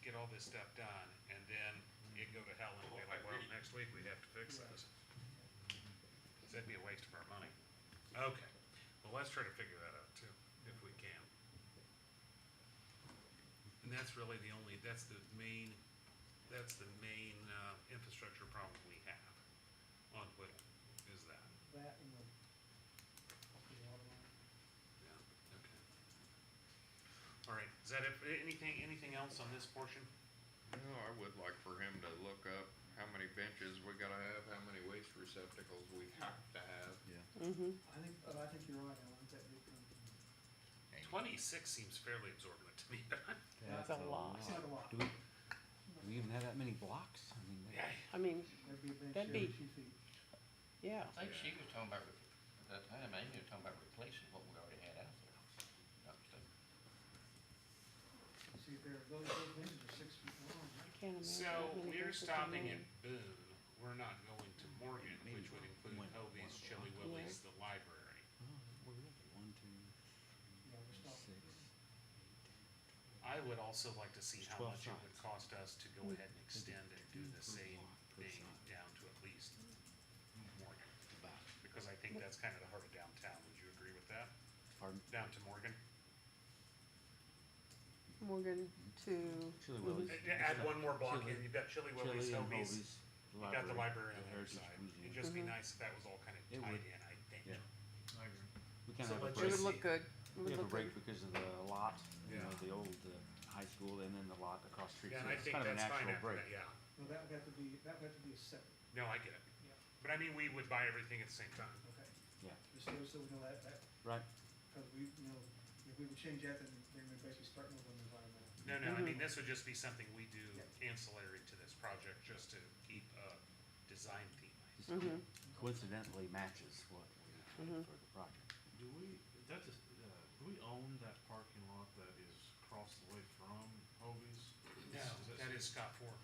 get all this stuff done, and then it go to hell and be like, well, next week we have to fix this. So That'd be a waste of our money. Okay, well, let's try to figure that out too, if we can. And that's really the only, that's the main, that's the main, uh, infrastructure problem we have on Whittle, is that. That and the, the water line. Yeah, okay. All right, is that it? Anything, anything else on this portion? No, I would like for him to look up how many benches we gotta have, how many waste receptacles we have to have. Yeah. I think, but I think you're right, Alan, that did come from, and- Twenty-six seems fairly absorbent to me, but I'm- That's a lot. it's not a lot. Do we, do we even have that many blocks? I mean, yeah, I mean, That'd be a bench That'd every be- two feet. yeah. I think she was talking about, re- at that time, I think you were talking about replacing what we already had out there. Not mistaken. See, if they're, those, those benches are six feet long, I can't imagine. how So many we're verses a stopping at man. Boone, we're not going to Morgan, Maybe which would include one- one Hobie's, of the Chili lines. Willie's, the library. Oh, where is it? One, two, yeah, we're three, stopping. six. I would also like to see There's how 12 much it would sides. cost us to go ahead and extend and do the same thing down to at least Hmm. Morgan. Because I think that's kind of the heart of downtown, would you agree with that? Pardon? Down to Morgan? Morgan to. Mhm. Chili Willie's. Uh, Add one more block in, you've got Chili Chili Willie's, and Hobie's, Hobie's, you got the library on the the other Heritage side. Museum. It'd just be nice if that was all kind It of tied would. in, I think. Yeah. We kind So of have a let's It would just- break. look good. It We would have a look break good. because of the lot, you know, Yeah. the old uh, high school and then the lot across the street. Yeah, So and I it's think kind of a that's fine natural after break. that, yeah. Well, that would have to be, that would have to be a separate, No, I get it. yeah, But I mean, we would buy everything at the same time. okay. Yeah, Just so, so we know that, that, right. because we, you know, if we would change that, then, then we're basically starting with an environmental. No, no, I mean, this would just be something we do Yeah. ancillary to this project, just to keep a design theme. Just Coincidentally matches what we had for the project. Do we, that is, uh, do we own that parking lot that is across the way from Hobie's? No, that is Scott Ford.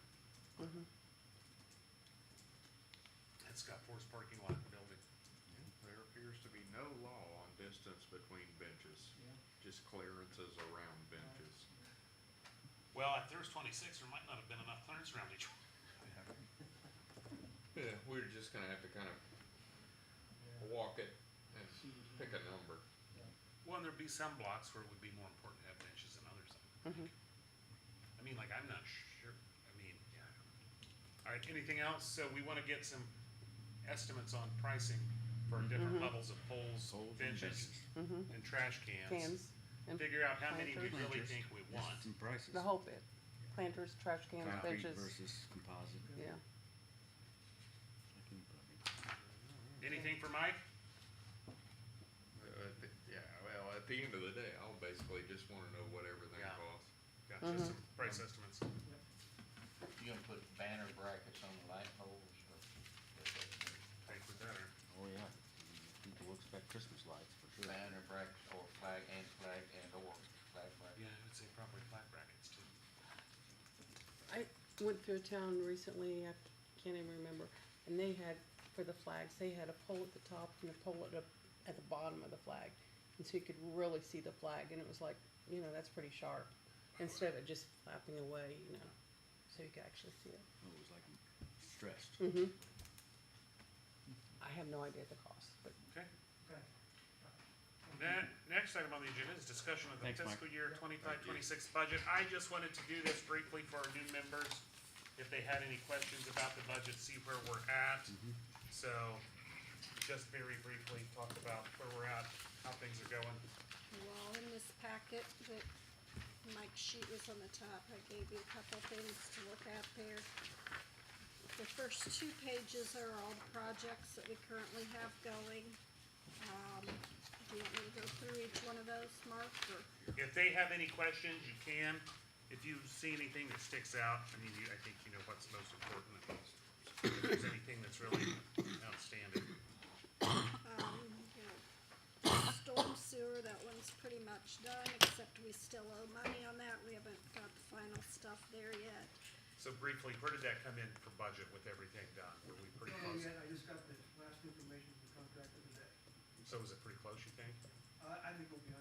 That's Scott Ford's parking lot and building. There appears to be no law on distance between benches, Yeah. just clearances around benches. Well, if there was twenty-six, there might not have been enough clearance around each one. Yeah, we're just gonna have to kind of Yeah. walk it See and what you pick a number. Yeah. Well, and there'd be some blocks where it would be more important to have benches than others. I think. I mean, like, I'm not sure, I mean, yeah. All right, anything else? So we want to get some estimates on pricing for different levels of poles, Poles and benches, and trash cans. Mm-hmm. Cans and Figure out how many we planters. really think we want. Some prices. The whole bit. Planters, trash cans, Concrete benches. versus composite. Yeah. I can probably- Anything for Mike? Uh, at the- Yeah, well, at the end of the day, I'll basically just wanna know what everything Yeah. costs. Got just some price estimates. You gonna put banner brackets on the light poles or Think we better. Oh, yeah. I mean, People will expect Christmas lights for sure. banner brackets or flag and flag and or flag Yeah, brackets? I would say probably flat brackets too. I went through a town recently, I can't even remember, and they had, for the flags, they had a pole at the top and a pole at the, at the bottom of the flag. And so you could really see the flag, and it was like, you know, that's pretty sharp, instead of it just flapping away, you know, so you could actually see it. Oh, It was like stressed. hmm I have no idea the cost, but Okay. Okay. Then, next item on the agenda is discussion of the Thanks, Mike. fiscal year twenty-five, Thank you. twenty-six budget. I just wanted to do this briefly for our new members. If they had any questions about the budget, see where we're at. Mm-hmm. So, just very briefly, talk about where we're at, how things are going. Well, in this packet that Mike's sheet was on the top, I gave you a couple things to look at there. The first two pages are all the projects that we currently have going. Um, do you want me to go through each one of those, Mark, or? If they have any questions, you can. If you see anything that sticks out, I mean, you, I think you know what's most important. and If there's anything that's really outstanding. Um, you know, Storm sewer, that one's pretty much done, except we still owe money on that. We haven't got the final stuff there yet. So briefly, where did that come in for budget with everything done? Were we pretty Oh, close? yeah, I just got the last information from the contractor today. So was it pretty close, you think? I, I think we'll be under